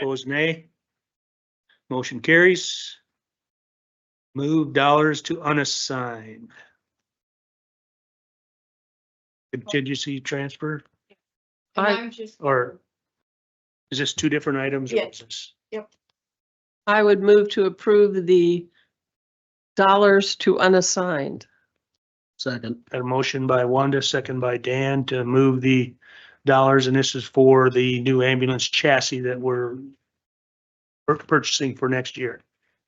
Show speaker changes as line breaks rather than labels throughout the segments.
Opposed, nay. Motion carries. Move dollars to unassigned. Contingency transfer,
And
I-
I'm just.
or is this two different items? or is
Yes.
this-
I would move to approve the dollars to unassigned.
Second,
Got a motion by Wanda, second by Dan to move the dollars, and this is for the new ambulance chassis that we're pur- purchasing for next year.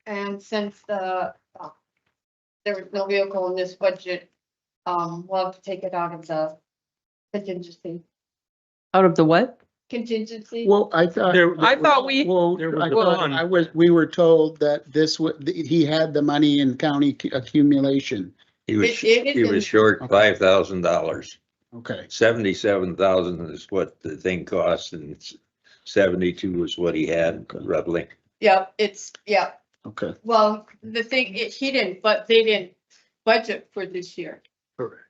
And since the, uh, there was no vehicle in this budget, um, we'll have to take it out of the contingency,
Out of the what?
contingency.
well, I thought,
There-
I thought we,
well,
there was
I
the
thought,
bond.
I was, we were told that this would, he had the money in county accumulation.
He
It-
was,
it is
he
in-
was short five thousand dollars.
Okay,
Seventy-seven thousand is what the thing cost and it's seventy-two is what he had roughly.
Yep, it's, yeah,
okay.
well, the thing, it- he didn't, but they didn't budget for this year.
Correct.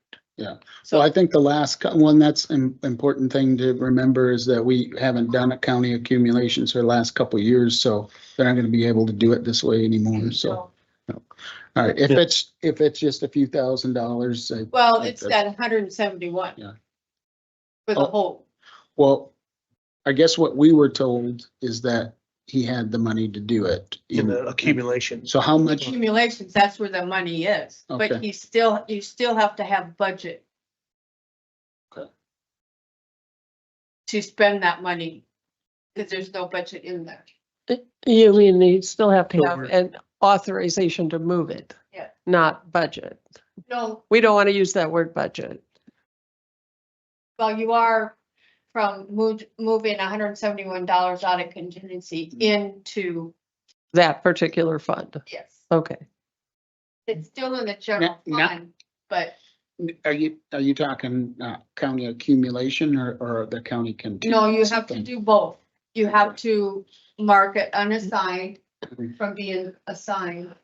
So I think the last co- one, that's an important thing to remember is that we haven't done a county accumulations for the last couple of years, so they're not gonna be able to do it this way anymore, so. All right, if
Yeah.
it's, if it's just a few thousand dollars, I-
Well,
Like
it's
that.
that hundred and seventy-one.
Yeah.
For
Oh.
the whole,
well, I guess what we were told is that he had the money to do it.
In the accumulation.
So how much,
accumulations, that's where the money is, but
Okay.
he still, you still have to have budget.
Okay.
To spend that money, because there's no budget in there.
you mean you still have to have
Over.
an authorization to move it.
Yeah.
Not budget.
No,
We don't want to use that word budget.
well, you are from moved, moving hundred and seventy-one dollars out of contingency
Mm-hmm.
into,
That particular fund.
yes,
Okay.
it's still in the general
Now- now-
fund, but
are you, are you talking, uh, county accumulation or, or the county can?
No, you have to do both. You have to mark it unassigned from being assigned.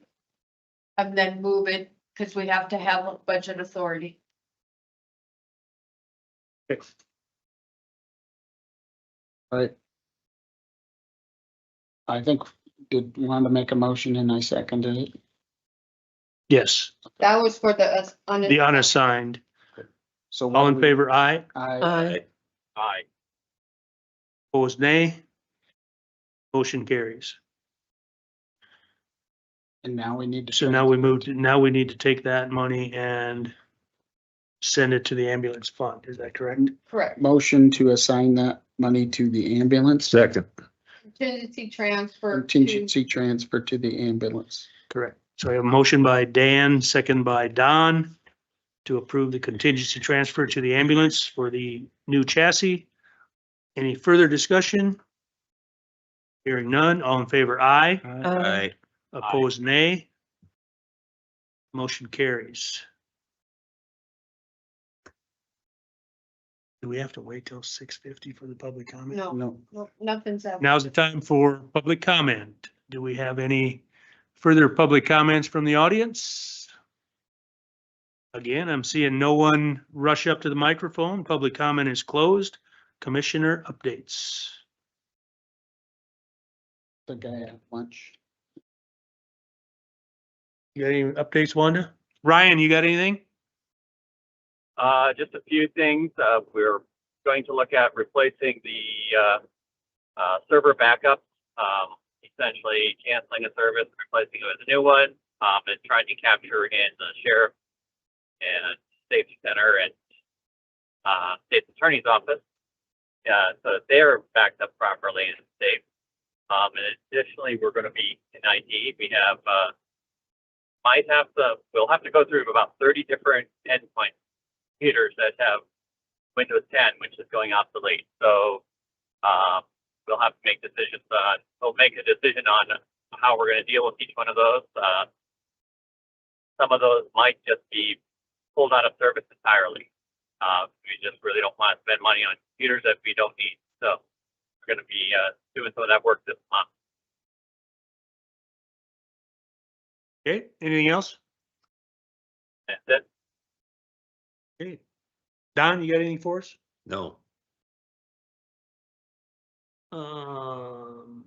And then move it, because we have to have a budget authority.
I think, did you want to make a motion and I seconded it?
Yes,
That was for the. uh, us-
the unassigned.
So.
All in
we-
favor, aye.
I,
I
Aye. Opposed, nay. Motion carries.
and now we need to.
So now we move, to now we need to take that money and send it to the ambulance fund. Is that correct?
Correct.
Motion to assign that money to the ambulance,
Second.
Contingency transfer. to-
contingency transfer to the ambulance.
Correct. So I have a motion by Dan, second by Don to approve the contingency transfer to the ambulance for the new chassis. Any further discussion? Hearing none, all in favor, aye.
Uh,
I um,
Opposed, nay. Motion carries. Do we have to wait till six fifty for the public comment?
No,
No,
no, nothing's up.
Now's the time for public comment. Do we have any further public comments from the audience? Again, I'm seeing no one rush up to the microphone. Public comment is closed. Commissioner updates.
the guy had lunch.
You got any updates, Wanda? Ryan, you got anything?
Uh, just a few things. Uh, we're going to look at replacing the, uh, uh, server backup, um, essentially canceling a service, replacing it with a new one, um, and trying to capture in the sheriff and safety center and, uh, state's attorney's office. Uh, so that they're backed up properly and safe. Um, and additionally, we're going to be in IT. We have, uh, might have to, we'll have to go through about 30 different endpoints computers that have Windows 10, which is going obsolete. So um, we'll have to make decisions on, we'll make a decision on how we're going to deal with each one of those. Uh, some of those might just be pulled out of service entirely. Uh, we just really don't want to spend money on computers that we don't need. So we're going to be uh, doing some of that work this month.
Okay, anything else?
That's it.
Okay. Don, you got anything for us?
No.
Um.